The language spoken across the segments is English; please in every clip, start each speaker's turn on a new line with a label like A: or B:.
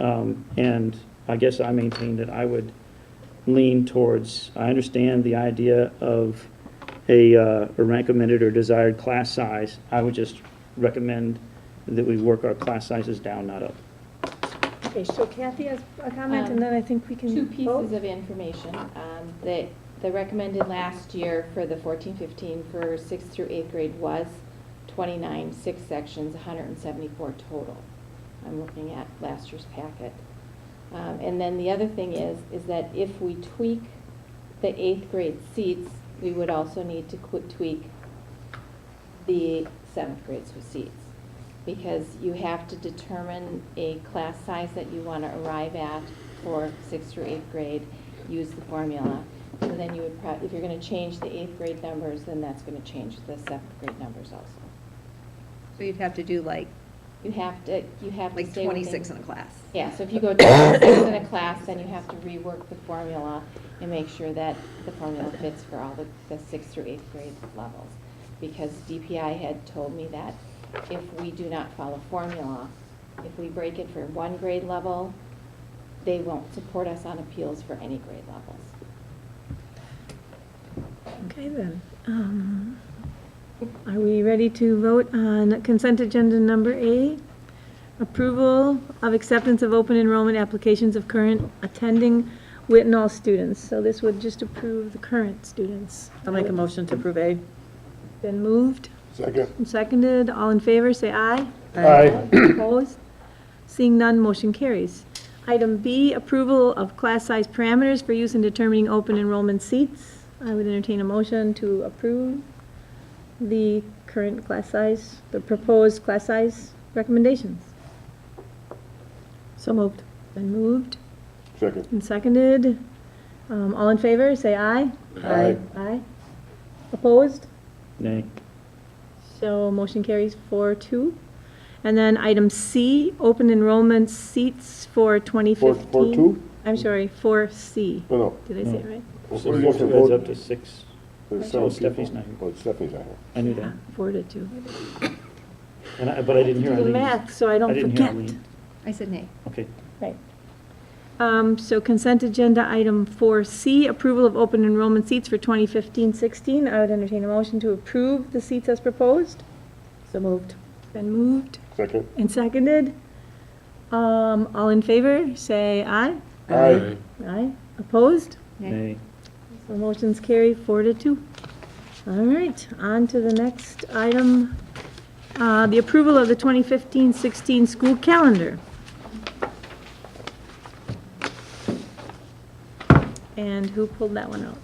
A: Um, And I guess I maintain that I would lean towards, I understand the idea of a uh, a recommended or desired class size. I would just recommend that we work our class sizes down, not up.
B: Okay, so Kathy has a comment, and
C: Um,
B: then I think we can
C: Two
B: vote.
C: pieces of information, um, that the recommended last year for the fourteen fifteen for sixth through eighth grade was twenty-nine, six sections, hundred and seventy-four total. I'm looking at last year's packet. Um, and then the other thing is, is that if we tweak the eighth grade seats, we would also need to qu- tweak the seventh grade's seats. Because you have to determine a class size that you want to arrive at for sixth through eighth grade, use the formula. So then you would, prob- if you're going to change the eighth grade numbers, then that's going to change the seventh grade numbers also.
D: So you'd have to do like,
C: You have to, you have to
D: like
C: stay within.
D: 26 in a class.
C: Yeah, so if you go to six in a class, then you have to rework the formula and make sure that the formula fits for all the, the sixth through eighth grade levels. Because DPI had told me that if we do not follow formula, if we break it for one grade level, they won't support us on appeals for any grade levels.
B: Okay, then. Um, Are we ready to vote on consent agenda number A? Approval of acceptance of open enrollment applications of current attending Whitnall students. So this would just approve the current students.
E: I'll make a motion to approve A.
B: Been moved
F: Second.
B: and seconded. All in favor, say aye.
F: Aye.
B: Opposed? Seeing none, motion carries. Item B, approval of class size parameters for use in determining open enrollment seats. I would entertain a motion to approve the current class size, the proposed class size recommendations.
E: So moved.
B: Been moved
F: Second.
B: and seconded. Um, All in favor, say aye.
F: Aye.
B: Aye. Opposed?
A: Nay.
B: So motion carries four two. And then item C, open enrollment seats for twenty
F: Four,
B: fifteen.
F: four, two?
B: I'm sorry, four C.
F: No, no.
B: Did I say it right?
F: We're
A: So
F: supposed to
A: it goes
F: vote-
A: up to six.
F: there's seven
A: Oh, Stephanie's
F: people.
A: not here.
F: Oh, Stephanie's not here.
A: I knew that.
B: Four to two.
A: And I, but I didn't hear
B: Do the
A: Eileen.
B: math, so I
A: I
B: don't
A: didn't hear
B: forget.
A: Eileen.
D: I said nay.
A: Okay.
B: Right. Um, so consent agenda item four C, approval of open enrollment seats for 2015-16. I would entertain a motion to approve the seats as proposed.
E: So moved.
B: Been moved
F: Second.
B: and seconded. Um, all in favor, say aye.
F: Aye.
B: Aye. Opposed?
A: Nay.
B: So motions carry four to two. All right, on to the next item, uh, the approval of the 2015-16 school calendar. And who pulled that one out?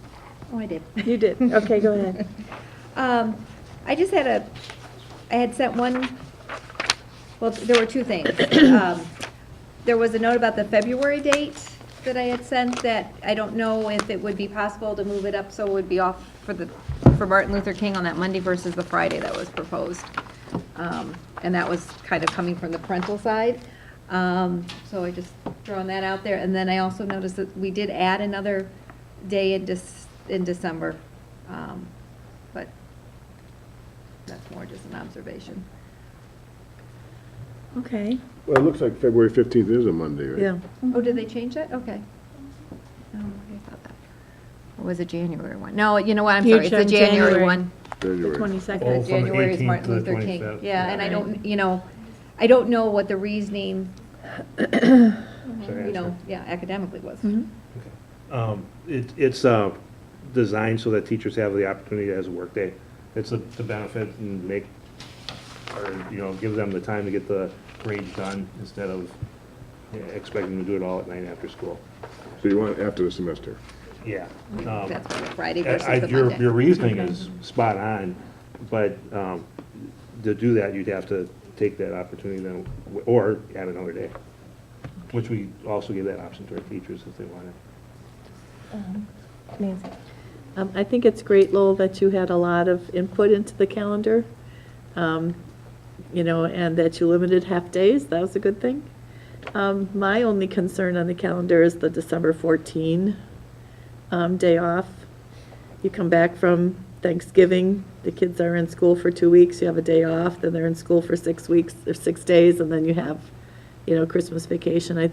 D: Oh, I did.
B: You did, okay, go ahead.
D: Um, I just had a, I had sent one, well, there were two things. Um, There was a note about the February date that I had sent that I don't know if it would be possible to move it up so it would be off for the, for Martin Luther King on that Monday versus the Friday that was proposed. Um, And that was kind of coming from the parental side. Um, So I just throwing that out there. And then I also noticed that we did add another day in Dec- in December. Um, But that's more just an observation.
B: Okay,
F: Well, it looks like February 15th is a Monday, right?
E: Yeah.
D: Oh, did they change that? Okay. Oh, I thought that. Or was it January one? No, you know what, I'm
B: You
D: sorry, it's the
B: turned January.
D: January one.
B: the
F: February.
B: 22nd.
G: Oh,
D: Uh,
G: from the
D: January is
G: 18th
D: Martin
G: to the
D: Luther King.
G: 25th.
D: Yeah, and I don't, you know, I don't know what the reasoning, Mm-hmm. you know, yeah, academically was.
G: Um, It, it's, uh, designed so that teachers have the opportunity as a workday. It's a, to benefit and make, or, you know, give them the time to get the grades done instead of you know, expecting them to do it all at night after school.
F: So you want it after the semester?
G: Yeah. Um,
D: Mm-hmm. That's why the Friday
G: I- I-
D: versus the
G: Your, your
D: Monday.
G: reasoning is
D: Mm-hmm.
G: spot on, but, um, to do that, you'd have to take that opportunity then, or add another day, which we also give that option to our teachers if they want it.
B: Nancy.
E: Um, I think it's great, Lowell, that you had a lot of input into the calendar, um, you know, and that you limited half-days. That was a good thing. Um, My only concern on the calendar is the December 14 um, day off. You come back from Thanksgiving, the kids are in school for two weeks, you have a day off, then they're in school for six weeks, or six days, and then you have, you know, Christmas vacation. I think